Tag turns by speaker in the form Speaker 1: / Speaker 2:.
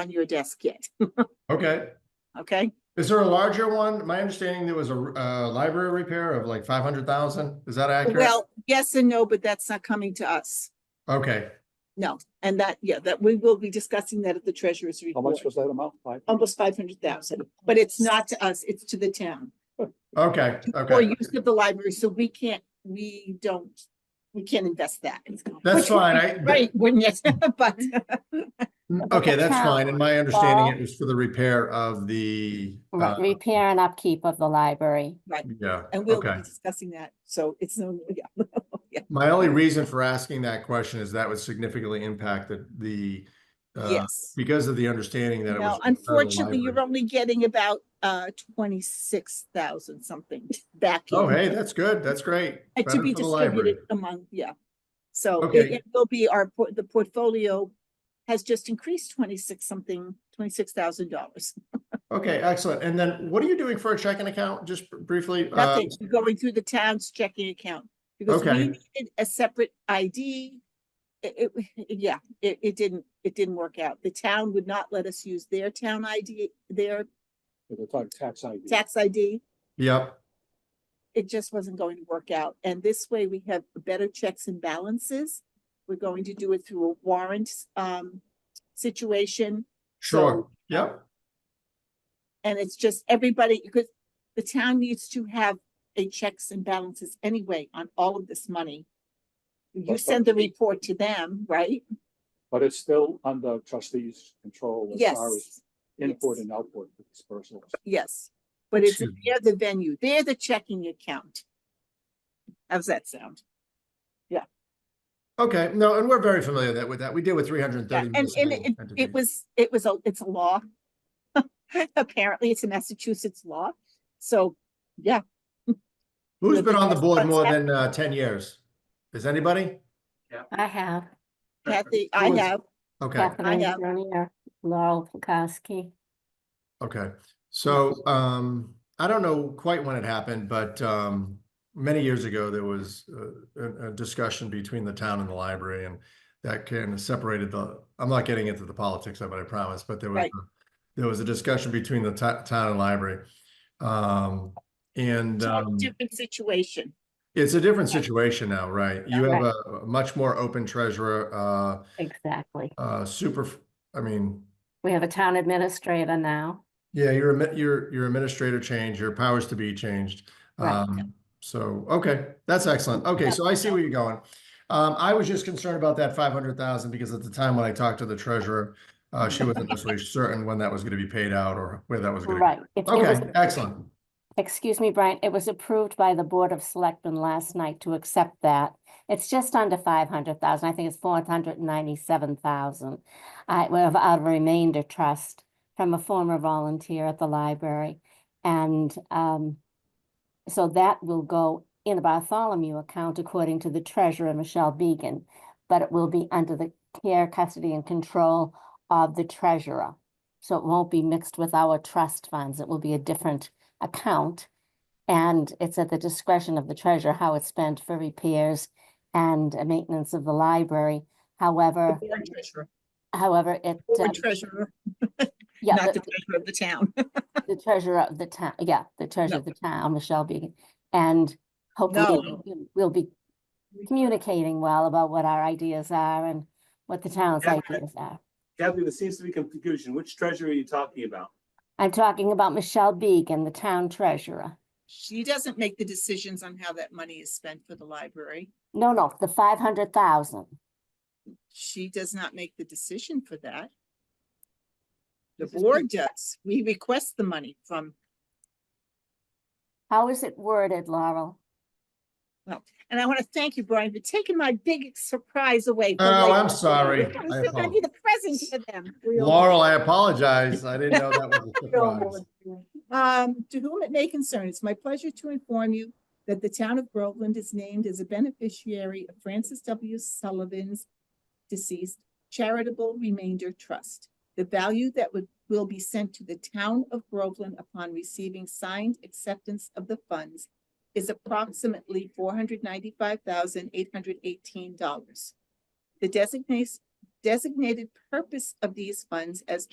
Speaker 1: on your desk yet,
Speaker 2: Okay.
Speaker 1: okay?
Speaker 2: Is there a larger one? My understanding there was a, uh, library repair of like five hundred thousand. Is that accurate?
Speaker 1: Well, yes and no, but that's not coming to us.
Speaker 2: Okay,
Speaker 1: And that, yeah, that we will be discussing that at the treasurer's
Speaker 3: How
Speaker 1: report,
Speaker 3: much was that amount? Five?
Speaker 1: almost five hundred thousand, but it's not to us, it's to the town.
Speaker 2: okay,
Speaker 1: Or
Speaker 2: okay.
Speaker 1: use of the library, so we can't, we don't, we can't invest that.
Speaker 2: That's
Speaker 1: Which would
Speaker 2: fine.
Speaker 1: be
Speaker 2: I,
Speaker 1: Great, wouldn't it? But,
Speaker 2: okay, that's
Speaker 4: town.
Speaker 2: fine. And my understanding
Speaker 4: Well-
Speaker 2: it was for the repair of the,
Speaker 4: Right,
Speaker 2: uh,
Speaker 4: Repair and upkeep of the library.
Speaker 2: yeah,
Speaker 1: and we'll be
Speaker 2: okay.
Speaker 1: discussing that, so it's no, yeah.
Speaker 2: My only reason for asking that question is that would significantly impact the, the, uh,
Speaker 1: Yes.
Speaker 2: because of the understanding that it
Speaker 1: No,
Speaker 2: was. a repair of the
Speaker 1: unfortunately, you're
Speaker 2: library.
Speaker 1: only getting about uh twenty-six thousand something back.
Speaker 2: Oh,
Speaker 1: in,
Speaker 2: hey, that's good. That's great.
Speaker 1: uh,
Speaker 2: Better
Speaker 1: To be
Speaker 2: for the library.
Speaker 1: distributed among, yeah. So it
Speaker 2: Okay.
Speaker 1: it will be our, por- the portfolio has just increased twenty-six something, twenty-six thousand dollars.
Speaker 2: Okay, excellent. And then what are you doing for a checking account? Just briefly? uh,
Speaker 1: Nothing, going through the town's checking account. Because we
Speaker 2: Okay.
Speaker 1: needed a separate ID. It, it- yeah, it, it didn't, it didn't work out. The town would not let us use their town ID, their
Speaker 3: We're talking tax ID.
Speaker 1: tax ID.
Speaker 2: Yep.
Speaker 1: it just wasn't going to work out. And this way we have better checks and balances. We're going to do it through a warrant um situation.
Speaker 2: Sure,
Speaker 1: So-
Speaker 2: yep,
Speaker 1: And it's just everybody, because the town needs to have a checks and balances anyway on all of this money. You
Speaker 3: But-
Speaker 1: send the report to them, right?
Speaker 3: But it's still under trustees' control as far as
Speaker 1: Yes,
Speaker 3: input
Speaker 1: yes.
Speaker 3: and output for dispersals.
Speaker 1: yes. But it's,
Speaker 2: Excuse me.
Speaker 1: they're the venue, they're the checking account. How's that sound?
Speaker 2: okay, no, and we're very familiar that with that, we deal with three hundred and
Speaker 1: Yeah,
Speaker 2: thirty.
Speaker 1: And, and it, it was, it was, a it's a law. Apparently, it's a Massachusetts law, so, yeah,
Speaker 2: Who's
Speaker 1: with
Speaker 2: been on the
Speaker 1: the
Speaker 2: board
Speaker 1: tax
Speaker 2: more
Speaker 1: cuts.
Speaker 2: than uh ten years? Is anybody?
Speaker 4: I have
Speaker 1: Kathy, I
Speaker 2: was-
Speaker 1: have,
Speaker 2: Okay,
Speaker 4: Kathleen
Speaker 1: have-
Speaker 4: Junior, Laurel Pukowski.
Speaker 2: okay, so um, I don't know quite when it happened, but um. Many years ago, there was uh, a, a discussion between the town and the library and that kind of separated the, I'm not getting into the politics of it, I promise, but there was.
Speaker 1: Right.
Speaker 2: a- There was a discussion between the ti- town and library. Um, and um.
Speaker 1: different situation,
Speaker 2: It's a different situation now, right? You
Speaker 4: Yeah.
Speaker 2: have a a much more open treasurer, uh,
Speaker 4: Exactly.
Speaker 2: uh, super, I mean,
Speaker 4: We have a town administrator now.
Speaker 2: yeah, your, admi- your, your administrator changed, your powers to be changed.
Speaker 4: Right.
Speaker 2: Um, so, okay, that's excellent. Okay, so I see where you're going. Um, I was just concerned about that five hundred thousand because at the time when I talked to the treasurer,
Speaker 4: Mm-hmm.
Speaker 2: uh, she wasn't necessarily certain when that was gonna be paid out or where that was gonna
Speaker 4: Right.
Speaker 2: be.
Speaker 4: It- it was-
Speaker 2: Okay, excellent.
Speaker 4: Excuse me, Brian, it was approved by the Board of Selectmen last night to accept that. It's just under five hundred thousand. I think it's four hundred and ninety-seven thousand. I have a remainder trust from a former volunteer at the library. And um, so that will go in the Bartholomew account according to the treasurer, Michelle Beegan. But it will be under the care, custody and control of the treasurer. So it won't be mixed with our trust funds. It will be a different account. And it's at the discretion of the treasurer how it's spent for repairs and uh, maintenance of the library.
Speaker 1: the
Speaker 4: However,
Speaker 1: board treasurer,
Speaker 4: however, it, uh,
Speaker 1: board treasurer,
Speaker 4: yeah,
Speaker 1: not
Speaker 4: but-
Speaker 1: the treasurer of the town.
Speaker 4: the treasurer of the town, yeah, the treasurer of the town, Michelle Beegan. And hopefully
Speaker 1: No.
Speaker 4: we'll- we'll be communicating well about what our ideas are and what the town's
Speaker 5: Yeah, but-
Speaker 4: ideas are.
Speaker 5: Kathy, there seems to be confusion. Which treasury are you talking about?
Speaker 4: I'm talking about Michelle Beegan, the town treasurer.
Speaker 1: She doesn't make the decisions on how that money is spent for the library.
Speaker 4: No, no, the five hundred thousand.
Speaker 1: She does not make the decision for that. The board does, we request the money from,
Speaker 4: How is it worded, Laurel?
Speaker 1: and I want to thank you, Brian, for taking my big surprise away. from
Speaker 2: Oh,
Speaker 1: like-
Speaker 2: I'm sorry.
Speaker 1: I
Speaker 2: I
Speaker 1: was still gonna be the present for them.
Speaker 2: Laurel, I apologize. I didn't know that was a surprise.
Speaker 1: Um, to whom it may concern, it's my pleasure to inform you that the town of Groveland is named as a beneficiary of Francis W. Sullivan's deceased charitable remainder trust. The value that would, will be sent to the town of Groveland upon receiving signed acceptance of the funds is approximately four hundred ninety-five thousand eight hundred eighteen dollars. The designates, designated purpose of these funds as